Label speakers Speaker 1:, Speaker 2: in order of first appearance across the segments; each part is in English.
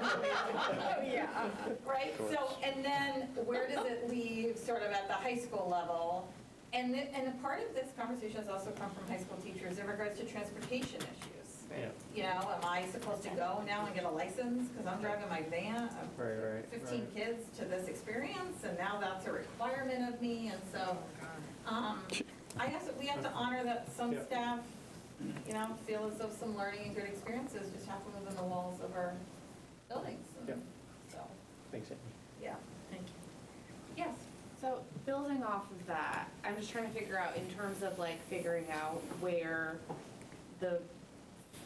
Speaker 1: Oh, yeah. Right? So, and then where does it leave sort of at the high school level? And, the- and a part of this conversation has also come from high school teachers in regards to transportation issues.
Speaker 2: Yeah.
Speaker 1: You know, am I supposed to go now and get a license because I'm driving my van? of
Speaker 2: Right, right,
Speaker 1: 15
Speaker 2: right.
Speaker 1: kids to this experience and now that's a requirement of me and so, um, I guess we have to honor that some
Speaker 2: Yeah.
Speaker 1: staff, you know, feel as though some learning and good experiences just happen within the walls of our buildings. and
Speaker 2: Yeah.
Speaker 1: So,
Speaker 2: Thanks, Amy.
Speaker 1: yeah.
Speaker 3: Thank you.
Speaker 1: Yes.
Speaker 4: So building off of that, I'm just trying to figure out in terms of like figuring out where the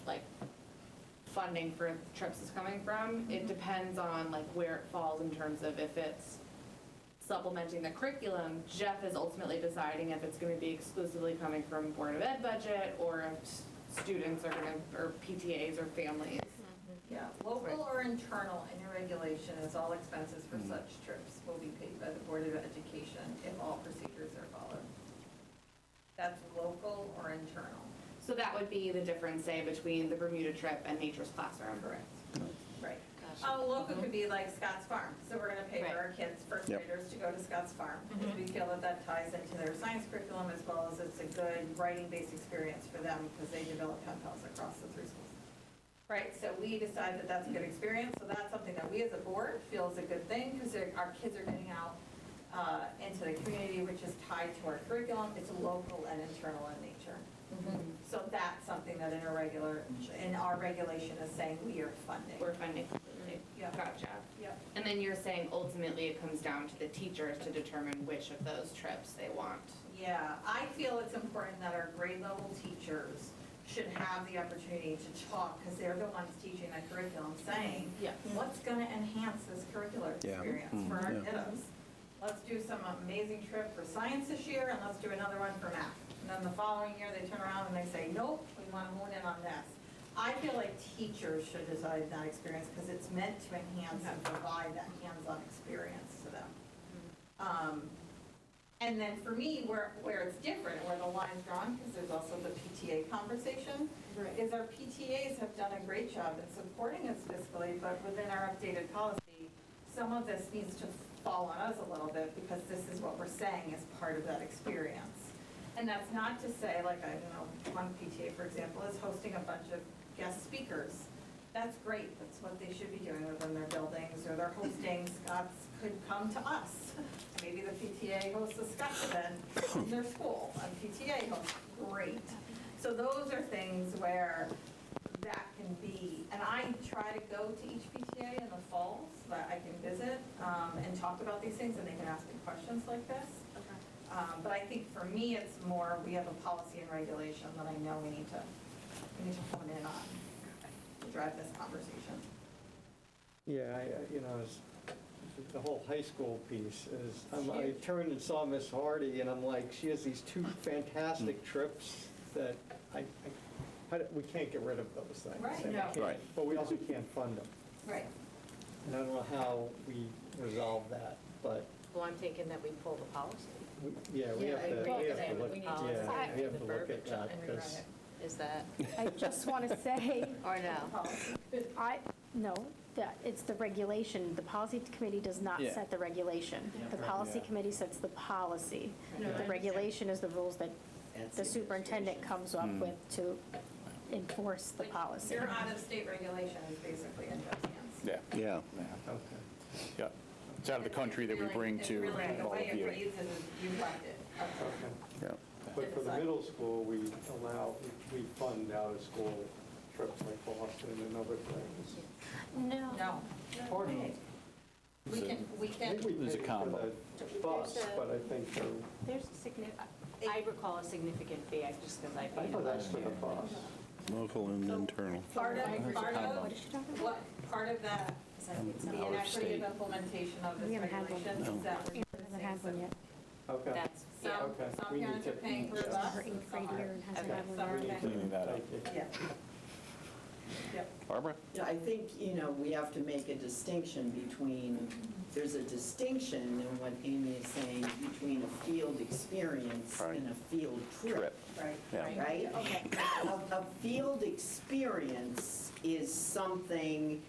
Speaker 4: like funding for trips is coming from. It depends on like where it falls in terms of if it's supplementing the curriculum. Jeff is ultimately deciding if it's gonna be exclusively coming from Board of Ed budget or if s- students are gonna, or PTAs or families.
Speaker 1: Yeah, local or internal in your regulation is all expenses for such trips will be paid by the Board of Education if all procedures are followed. That's local or internal.
Speaker 4: So that would be the difference, say, between the Bermuda trip and Nature's Classroom.
Speaker 1: Right. Uh, local could be like Scott's Farm, so we're gonna pay for our kids, first
Speaker 5: Yep.
Speaker 1: graders, to go to Scott's Farm. because We feel that that ties into their science curriculum as well as it's a good writing-based experience for them because they develop pen pals across the three schools. Right, so we decide that that's a good experience, so that's something that we as a board feel is a good thing because our kids are getting out uh, into the community, which is tied to our curriculum. It's local and internal in nature.
Speaker 4: Mm-hmm.
Speaker 1: So that's something that in our regular, in our regulation is saying we are funding.
Speaker 4: We're funding completely.
Speaker 1: Yeah.
Speaker 4: Gotcha.
Speaker 1: Yep.
Speaker 4: And then you're saying ultimately it comes down to the teachers to determine which of those trips they want.
Speaker 1: Yeah, I feel it's important that our grade level teachers should have the opportunity to talk, because they're the ones teaching the curriculum, saying,
Speaker 4: Yeah.
Speaker 1: what's going to enhance this curricular
Speaker 5: Yeah.
Speaker 1: experience for our
Speaker 5: Mm, yeah.
Speaker 1: kiddos? Let's do some amazing trip for science this year, and let's do another one for math. And then the following year, they turn around and they say, nope, we want to hone in on this. I feel like teachers should decide that experience, because it's meant to enhance and provide that hands-on experience to them. Um, and then for me, where, where it's different, where the line's drawn, because there's also the PTA conversation, is our PTAs have done a great job in supporting us fiscally, but within our updated policy, some of this needs to fall on us a little bit, because this is what we're saying is part of that experience. And that's not to say, like, I don't know, one PTA, for example, is hosting a bunch of guest speakers. That's great, that's what they should be doing within their buildings or their hosting. Scots could come to us. Maybe the PTA hosts a Scots event in their school, and PTA hosts, great. So those are things where that can be, and I try to go to each PTA in the fall so that I can visit um, and talk about these things, and they can ask me questions like this. Um, But I think for me, it's more, we have a policy and regulation that I know we need to, we need to hone in on to drive this conversation.
Speaker 2: Yeah, I, I- you know, it's- the whole high school piece is, I'm- I
Speaker 1: Huge.
Speaker 2: turned and saw Miss Hardy, and I'm like, she has these two fantastic
Speaker 3: Mm.
Speaker 2: trips that I, I- how do- we can't get rid of those things.
Speaker 1: Right.
Speaker 2: And we
Speaker 1: No.
Speaker 2: can't-
Speaker 5: Right.
Speaker 2: But we also can't fund them.
Speaker 1: Right.
Speaker 2: And I don't know how we resolve that, but,
Speaker 3: Well, I'm thinking that we pull the policy.
Speaker 2: we- yeah, we
Speaker 3: Yeah,
Speaker 2: have
Speaker 3: I
Speaker 2: to,
Speaker 3: agree
Speaker 2: we
Speaker 3: with
Speaker 2: have to
Speaker 3: that.
Speaker 2: look,
Speaker 3: We need to
Speaker 2: yeah,
Speaker 6: decide
Speaker 2: we have
Speaker 3: the
Speaker 2: to look at
Speaker 3: verbiage
Speaker 2: that,
Speaker 3: and rewrite
Speaker 2: because,
Speaker 3: it. Is that,
Speaker 6: I just want to say,
Speaker 3: or no?
Speaker 6: I, no, that, it's the regulation. The policy committee does not
Speaker 5: Yeah.
Speaker 6: set the regulation. The policy
Speaker 2: Yeah.
Speaker 6: committee sets the policy. The regulation is the rules that the superintendent comes up with to enforce the policy.
Speaker 1: Your out-of-state regulation is basically in Jeff's hands.
Speaker 7: Yeah,
Speaker 5: Yeah.
Speaker 2: okay.
Speaker 7: yeah. It's out of the country that we bring
Speaker 1: It's
Speaker 7: to
Speaker 1: really- it's really
Speaker 7: all
Speaker 1: the way
Speaker 7: of
Speaker 1: it
Speaker 7: you.
Speaker 1: reads is you left it.
Speaker 5: Yeah.
Speaker 8: But for the middle school, we allow, we fund out-of-school trips like Boston and other things.
Speaker 1: No.
Speaker 2: Or-
Speaker 1: We can, we
Speaker 2: I think
Speaker 1: can,
Speaker 2: we
Speaker 7: There's a
Speaker 2: paid for
Speaker 7: combo.
Speaker 2: the bus,
Speaker 3: There's a-
Speaker 2: but I think, the-
Speaker 3: There's a significant, I recall a significant fee, I just, because I
Speaker 8: I
Speaker 3: paid
Speaker 8: thought
Speaker 3: it.
Speaker 8: that's for the bus.
Speaker 5: Local and internal.
Speaker 1: part of, part
Speaker 6: What is
Speaker 1: of,
Speaker 6: she talking about?
Speaker 1: what, part of that, the inequity
Speaker 5: state.
Speaker 1: of implementation of
Speaker 6: Um, We
Speaker 1: this
Speaker 6: haven't had one.
Speaker 1: regulation is that we're
Speaker 6: I haven't had one yet.
Speaker 2: okay.
Speaker 3: That's, yeah,
Speaker 1: Some,
Speaker 2: Okay.
Speaker 1: some
Speaker 2: We need
Speaker 1: parents are
Speaker 2: to-
Speaker 1: paying for a
Speaker 2: yeah.
Speaker 1: bus
Speaker 6: Her
Speaker 1: and
Speaker 6: eighth
Speaker 1: some
Speaker 6: grade year
Speaker 1: aren't.
Speaker 6: and hasn't had
Speaker 1: Some are
Speaker 6: one
Speaker 2: We
Speaker 6: yet.
Speaker 1: paying.
Speaker 2: need to-
Speaker 7: Cleaning that up.
Speaker 2: Thank you.
Speaker 1: Yeah. Yep.
Speaker 7: Barbara?
Speaker 9: Yeah, I think, you know, we have to make a distinction between, there's a distinction in what Amy is saying between a field experience
Speaker 7: Right.
Speaker 9: and a field trip,
Speaker 7: Trip.
Speaker 1: Right.
Speaker 7: Yeah.
Speaker 9: right? A, a field experience is something